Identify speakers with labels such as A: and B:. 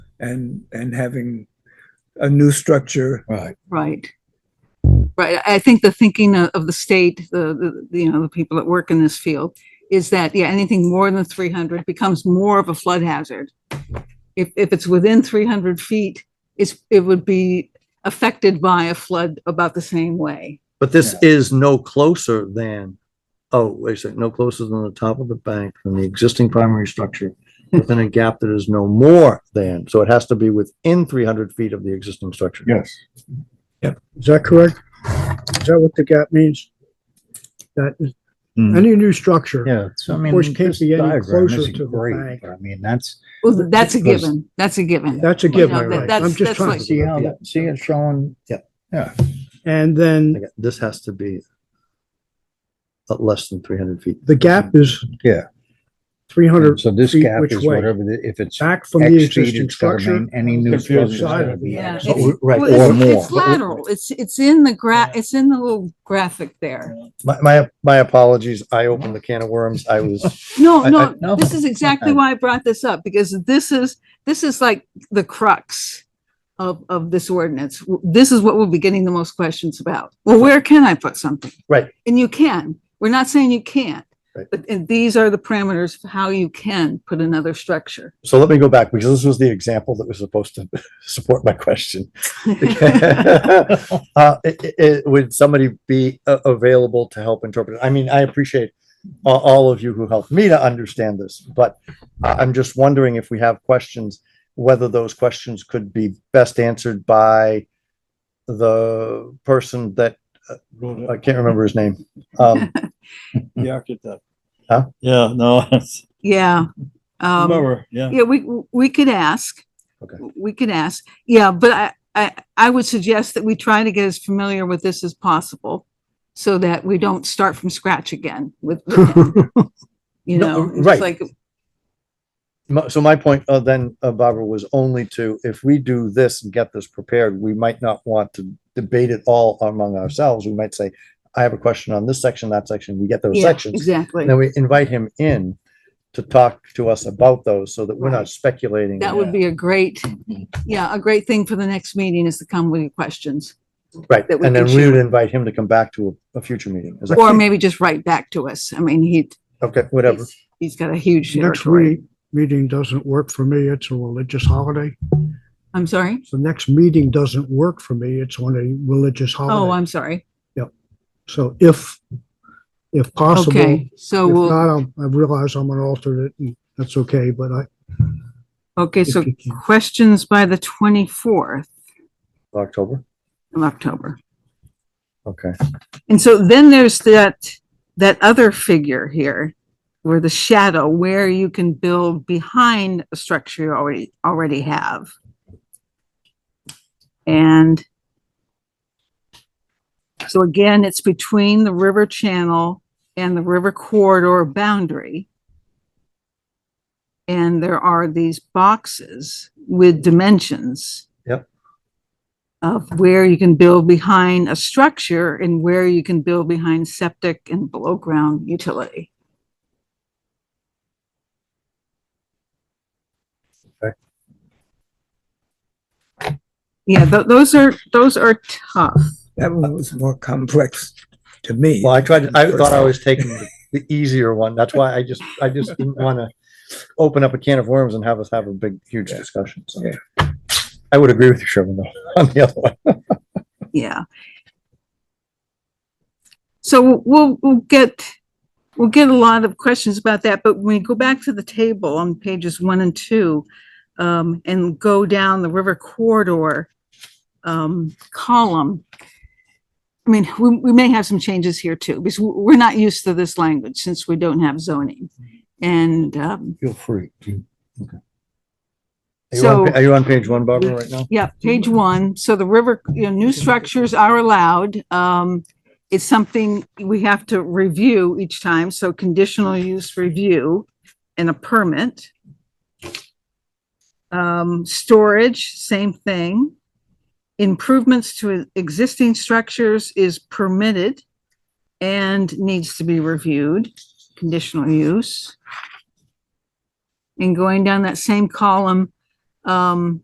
A: and, and having a new structure.
B: Right.
C: Right. Right. I think the thinking of of the state, the, the, you know, the people that work in this field is that, yeah, anything more than three hundred becomes more of a flood hazard. If, if it's within three hundred feet, it's, it would be affected by a flood about the same way.
D: But this is no closer than, oh, wait a second, no closer than the top of the bank than the existing primary structure within a gap that is no more than, so it has to be within three hundred feet of the existing structure.
B: Yes.
E: Is that correct? Is that what the gap means? That is-
B: Hmm.
E: any new structure,
B: Yeah, so I mean.
E: course, can't
B: this
E: be any
B: diagram
E: closer
B: isn't
E: to the
B: great,
E: bank.
B: but I mean, that's,
C: Well, that's a
B: Because-
C: given. That's a given.
E: that's a
C: Yeah,
E: given,
C: that-
E: right?
C: that's-
E: I'm just
C: that's
E: trying,
C: like-
B: see how, that- see it showing.
D: Yeah.
B: Yeah.
E: and then
D: Again, This has to be at less than three hundred feet.
E: the gap is
B: Hmm. Yeah.
E: three
B: And
E: hundred
B: So this
E: feet
B: gap
E: which
B: is
E: way?
B: whatever, the- if it's
E: back from the
B: X feet,
E: existing
B: it's gotta
E: structure.
B: remain, any new structure
E: Confused.
B: is gotta be.
C: Yeah.
B: X.
C: It's-
D: Right.
C: Well,
B: or
C: it's-
B: more.
C: It's lateral. It's, it's in the gra, it's in the little graphic there.
D: My, my, my apologies. I opened the can of worms. I was,
C: No,
D: I- I-
C: no,
B: no,
C: this is exactly
B: okay.
C: why I brought this up, because this is, this is like the crux of, of this ordinance. W- This is what we'll be getting the most questions about. Well, where can I put something?
D: Right.
C: And you can. We're not saying you can't.
D: Right.
C: But and these are the parameters for how you can put another structure.
D: so let me go back because this was the example that was supposed to support my question. Uh, it, it- it- would somebody be uh, available to help interpret? it? I mean, I appreciate a- all of you who helped me to understand this, but I, I'm just wondering if we have questions, whether those questions could be best answered by the person that, uh, I can't remember his name. Um,
F: The architect.
D: Huh?
F: Yeah, no, it's
C: Yeah. Um,
F: whoever, yeah.
C: Yeah, we, we could ask.
D: Okay.
C: We could ask. Yeah, but I, I, I would suggest that we try to get as familiar with this as possible so that we don't start from scratch again with, you
D: No,
C: know, it's
D: right.
C: like,
D: my- So my point uh, then, uh, Barbara, was only to, if we do this and get this prepared, we might not want to debate it all among ourselves. We might say, I have a question on this section, that section. We get those
C: yeah,
D: sections.
C: exactly.
D: And then we invite him in to talk to us about those so that we're
C: Right.
D: not speculating.
C: That would be a great, yeah, a great thing for the next meeting is to come with your questions
D: Right.
C: that we
D: And
C: can
D: then we would
C: share.
D: invite him to come back to a, a future meeting. Is that-
C: or maybe just write back to us. I mean, he,
D: Okay, whatever.
C: he's- he's got a huge
E: Next
C: territory.
E: week, meeting doesn't work for me. It's a religious holiday.
C: I'm sorry.
E: So next meeting doesn't work for me. It's on a religious
C: Oh,
E: holiday.
C: I'm sorry.
E: So if, if possible, if
C: Okay, so Oh, we'll,
E: not, I'll- I realize I'm an alternate and that's okay, but I,
C: okay,
E: if
C: so
E: you can.
C: questions by the 24th
D: October.
C: of October.
D: Okay.
C: And so then there's that, that other figure here, where the shadow, where you can build behind a structure you already, already have. And so again, it's between the river channel and the river corridor boundary. And there are these boxes with dimensions of where you can build behind a structure and where you can build behind septic and below ground utility.
D: Okay.
C: Yeah, tho- those are, those are tough.
A: That one was more complex to me.
D: Well, I tried, I thought I was taking the- the easier one. That's why I just, I just didn't want to open up a can of worms and have us have a big, huge
A: Yeah.
D: discussion. So
A: Yeah.
D: I would agree with you, Sherman, though, on the other one.
C: Yeah. So we'll, we'll get, we'll get a lot of questions about that, but when we go back to the table on pages one and two, um, and go down the river corridor, um, column, I mean, we, we may have some changes here too, because we- we're not used to this language since we don't have zoning. And, um,
B: Feel free.
D: Are you on
C: So-
D: pa- Are you on page one, Barbara, right now?
C: Yeah, page one. So the river, you know, new structures are allowed. Um, it's something we have to review each time. So conditional use review and a permit. Um, storage, same thing. Improvements to existing structures is permitted and needs to be reviewed, conditional use. And going down that same column, um,